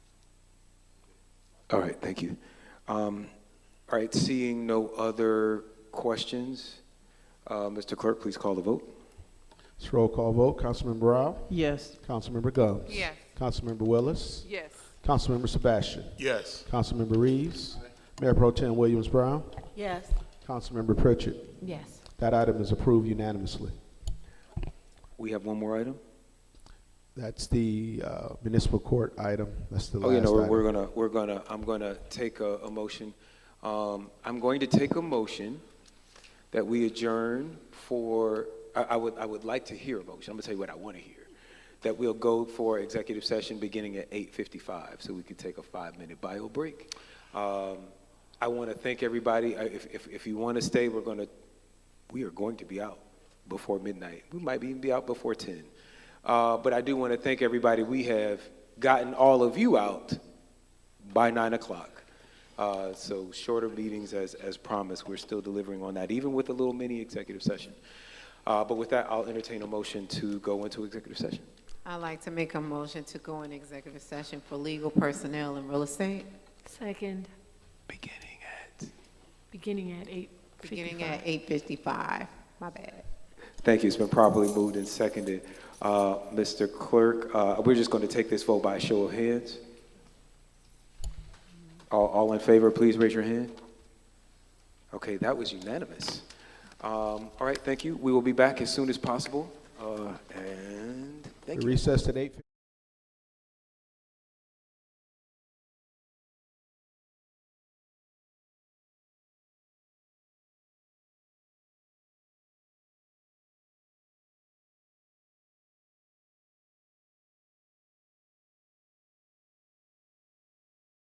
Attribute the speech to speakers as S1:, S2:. S1: All right, thank you. Um, All right, seeing no other questions, uh, Mr. Clerk, please call the vote.
S2: It's roll call vote. Councilman Brown.
S3: Yes.
S2: Councilmember Gomes.
S4: Yes.
S2: Councilmember Willis.
S4: Yes.
S2: Councilmember Sebastian.
S5: Yes.
S2: Councilmember Reeves. Mayor Pro Tem Williams Brown.
S4: Yes.
S2: Councilmember Pritchett.
S4: Yes.
S2: That item is approved unanimously.
S1: We have one more item?
S2: That's the uh, municipal court item. That's the
S1: Oh,
S2: last
S1: you know,
S2: item.
S1: we're gonna, we're gonna, I'm gonna take a, a motion. Um, I'm going to take a motion that we adjourn for, I, I would, I would like to hear a motion. I'm gonna tell you what I wanna hear. That we'll go for executive session beginning at eight fifty-five, so we can take a five-minute bio break. Um, I wanna thank everybody. I- If, if, if you wanna stay, we're gonna, we are going to be out before midnight. We might even be out before ten. Uh, but I do wanna thank everybody. We have gotten all of you out by nine o'clock. Uh, So shorter meetings as, as promised, we're still delivering on that, even with a little mini executive session. Uh, But with that, I'll entertain a motion to go into executive session.
S4: I'd like to make a motion to go in executive session for legal personnel and real estate,
S6: Second,
S1: Beginning at.
S6: beginning at eight
S4: beginning at eight fifty-five. My bad.
S1: Thank you, it's been properly moved and seconded. Uh, Mr. Clerk, uh, we're just going to take this vote by a show of hands. All, all in favor, please raise your hand. Okay, that was unanimous. Um, All right, thank you. We will be back as soon as possible, Uh, and thank you.
S2: We recessed at 8:15.